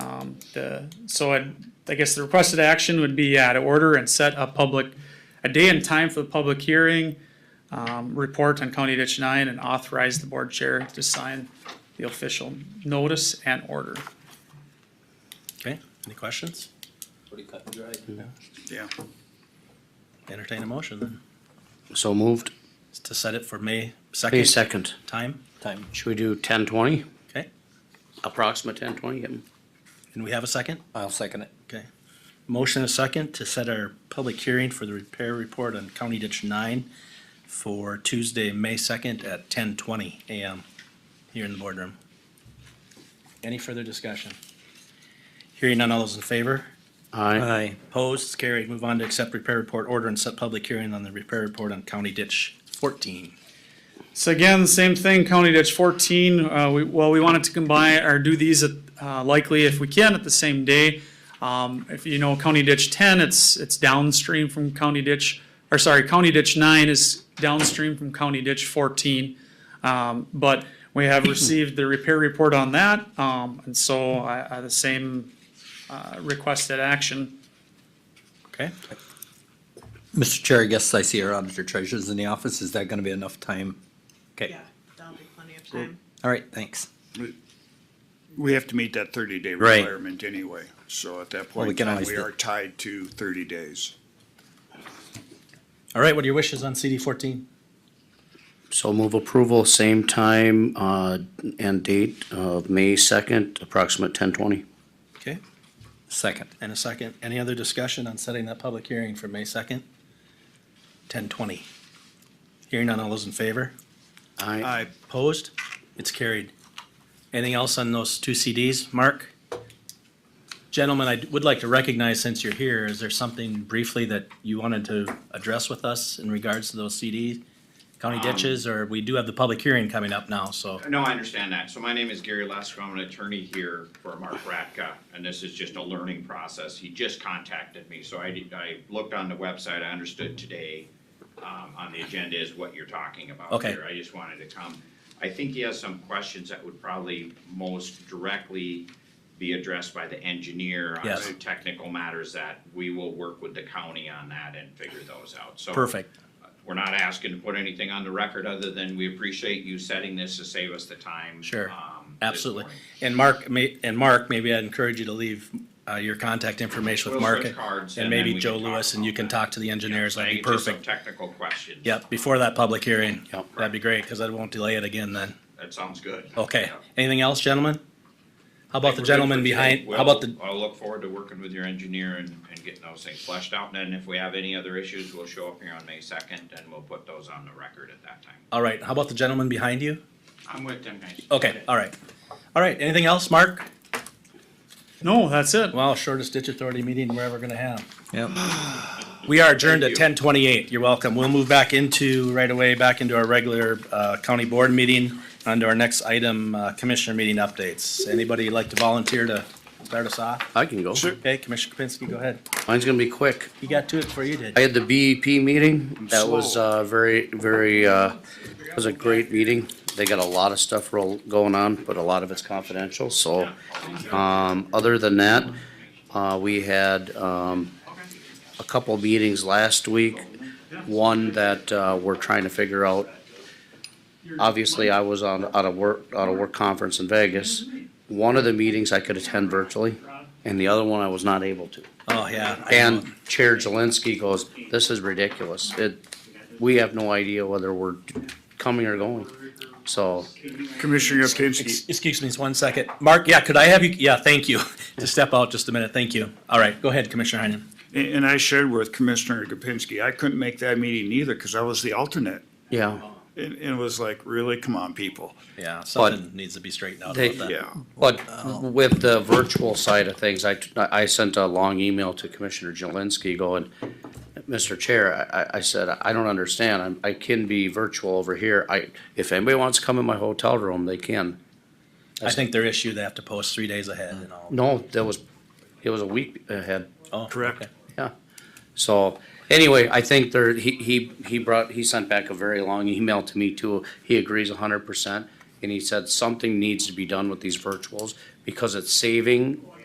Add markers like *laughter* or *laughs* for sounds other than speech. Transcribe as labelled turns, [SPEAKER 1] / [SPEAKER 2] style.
[SPEAKER 1] the, so I, I guess the requested action would be, yeah, to order and set a public, a day and time for the public hearing, um, report on County Ditch Nine and authorize the board chair to sign the official notice and order.
[SPEAKER 2] Okay, any questions?
[SPEAKER 3] Pretty cut and dried.
[SPEAKER 1] Yeah.
[SPEAKER 2] Entertain a motion then,
[SPEAKER 4] So moved.
[SPEAKER 2] It's to set it for May
[SPEAKER 4] May
[SPEAKER 2] second
[SPEAKER 4] second.
[SPEAKER 2] time,
[SPEAKER 3] Time.
[SPEAKER 4] Should we do ten twenty?
[SPEAKER 2] okay?
[SPEAKER 4] Approximate ten twenty?
[SPEAKER 2] And we have a second?
[SPEAKER 3] I'll second it.
[SPEAKER 2] Okay. Motion and a second to set our public hearing for the repair report on County Ditch Nine for Tuesday, May second at ten twenty AM here in the boardroom. Any further discussion? Hearing none, all those in favor?
[SPEAKER 4] Aye.
[SPEAKER 2] Opposed, It's carried. Move on to accept repair report order and set public hearing on the repair report on County Ditch fourteen.
[SPEAKER 1] So again, same thing, County Ditch fourteen, uh, we, well, we wanted to combine or do these at, uh, likely if we can at the same day. Um, if you know County Ditch ten, it's, it's downstream from County Ditch, or sorry, County Ditch nine is downstream from County Ditch fourteen. Um, but we have received the repair report on that, um, and so I, I, the same, uh, requested action.
[SPEAKER 2] Okay?
[SPEAKER 3] Mr. Chair, I guess I see our auditor treasurer's in the office. Is that gonna be enough time? Okay,
[SPEAKER 5] Yeah, that'll be plenty of time.
[SPEAKER 3] all right, thanks.
[SPEAKER 6] We have to meet that thirty day
[SPEAKER 3] Right.
[SPEAKER 6] requirement anyway, so at that
[SPEAKER 3] Well,
[SPEAKER 6] point
[SPEAKER 3] we
[SPEAKER 6] in
[SPEAKER 3] can
[SPEAKER 6] time,
[SPEAKER 3] always
[SPEAKER 6] we
[SPEAKER 3] do-
[SPEAKER 6] are tied to thirty days.
[SPEAKER 2] All right, what are your wishes on CD fourteen?
[SPEAKER 4] So move approval, same time, uh, and date of May second, approximate ten twenty.
[SPEAKER 2] Okay,
[SPEAKER 3] Second.
[SPEAKER 2] and a second. Any other discussion on setting that public hearing for May second? Ten twenty. Hearing none, all those in favor?
[SPEAKER 4] Aye.
[SPEAKER 6] I,
[SPEAKER 2] Opposed? It's carried. Anything else on those two CDs, Mark? Gentlemen, I would like to recognize, since you're here, is there something briefly that you wanted to address with us in regards to those CDs? County ditches, or we do have the public hearing coming up now, so,
[SPEAKER 7] No, I understand that. So my name is Gary Lesko. I'm an attorney here for Mark Ratka, and this is just a learning process. He just contacted me, so I did, I looked on the website. I understood today, um, on the agenda is what you're talking about
[SPEAKER 2] Okay.
[SPEAKER 7] here. I just wanted to come. I think he has some questions that would probably most directly be addressed by the engineer on
[SPEAKER 2] Yes.
[SPEAKER 7] some technical matters that we will work with the county on that and figure those out. So
[SPEAKER 2] perfect.
[SPEAKER 7] we're not asking to put anything on the record other than we appreciate you setting this to save us the time.
[SPEAKER 2] Sure.
[SPEAKER 7] um, this
[SPEAKER 2] Absolutely.
[SPEAKER 7] morning.
[SPEAKER 2] And Mark, may, and Mark, maybe I'd encourage you to leave, uh, your contact information with
[SPEAKER 7] We'll
[SPEAKER 2] Mark.
[SPEAKER 7] switch cards
[SPEAKER 2] And
[SPEAKER 7] and
[SPEAKER 2] maybe
[SPEAKER 7] then we
[SPEAKER 2] Joe
[SPEAKER 7] can talk
[SPEAKER 2] Lewis, and
[SPEAKER 7] about
[SPEAKER 2] you can
[SPEAKER 7] that.
[SPEAKER 2] talk to the engineers, that'd be
[SPEAKER 7] Thank you. Just some
[SPEAKER 2] perfect.
[SPEAKER 7] Technical questions.
[SPEAKER 2] Yep, before that public hearing.
[SPEAKER 4] Yep.
[SPEAKER 2] That'd be great, cause I won't delay it again then.
[SPEAKER 7] That sounds good.
[SPEAKER 2] Okay,
[SPEAKER 7] Yep.
[SPEAKER 2] anything else, gentlemen? How
[SPEAKER 7] I think
[SPEAKER 2] about the
[SPEAKER 7] we're good
[SPEAKER 2] gentleman
[SPEAKER 7] for today.
[SPEAKER 2] behind, how about the,
[SPEAKER 7] We'll- I'll look forward to working with your engineer and, and getting those things fleshed out. And then if we have any other issues, we'll show up here on May second and we'll put those on the record at that time.
[SPEAKER 2] all right, how about the gentleman behind you?
[SPEAKER 7] I'm with them guys.
[SPEAKER 2] Okay, all right. All right, anything else, Mark?
[SPEAKER 1] No, that's it.
[SPEAKER 2] Wow, shortest ditch authority meeting we're ever gonna have.
[SPEAKER 3] Yep.
[SPEAKER 2] *sighs* We are adjourned at
[SPEAKER 7] Thank you.
[SPEAKER 2] ten twenty-eight. You're welcome. We'll move back into, right away, back into our regular, uh, county board meeting, onto our next item, uh, commissioner meeting updates. Anybody like to volunteer to start us off?
[SPEAKER 4] I can go.
[SPEAKER 2] Okay, Commissioner Kapinski, go ahead.
[SPEAKER 4] Mine's gonna be quick.
[SPEAKER 2] You got to it before you did.
[SPEAKER 4] I had the BEP meeting. That was,
[SPEAKER 6] slow.
[SPEAKER 4] uh, very, very, uh, it was a great meeting. They got a lot of stuff roll, going on, but a lot of it's confidential, so. Um, other than that, uh, we had, um, a couple meetings last week. One that, uh, we're trying to figure out. Obviously, I was on, out of work, out of work conference in Vegas. One of the meetings I could attend virtually, and the other one I was not able to.
[SPEAKER 2] Oh, yeah. I know.
[SPEAKER 4] And Chair Jelinski goes, this is ridiculous. It, we have no idea whether we're coming or going. So,
[SPEAKER 6] Commissioner
[SPEAKER 2] Ex-
[SPEAKER 6] Kapinski,
[SPEAKER 2] Excuse me, just one second. Mark, yeah, could I have you, yeah, thank you. *laughs* To step out just a minute, thank you. All right, go ahead, Commissioner Heinen.
[SPEAKER 6] a- and I shared with Commissioner Kapinski, I couldn't make that meeting either because I was the alternate.
[SPEAKER 4] yeah,
[SPEAKER 6] And, and it was like, really, come on, people.
[SPEAKER 2] Yeah, something needs to be straightened out
[SPEAKER 4] They-
[SPEAKER 2] about that.
[SPEAKER 6] Yeah.
[SPEAKER 4] but with the virtual side of things, I, I sent a long email to Commissioner Jelinski going, Mr. Chair, I- I, I said, I don't understand. I'm- I can be virtual over here. I, if anybody wants to come in my hotel room, they can.
[SPEAKER 2] I think their issue, they have to post three days ahead and all.
[SPEAKER 4] No, that was, it was a week ahead.
[SPEAKER 2] Oh,
[SPEAKER 6] Correct.
[SPEAKER 2] okay.
[SPEAKER 4] So anyway, I think there, he, he, he brought, he sent back a very long email to me too. He agrees hundred percent. And he said something needs to be done with these virtuals because it's saving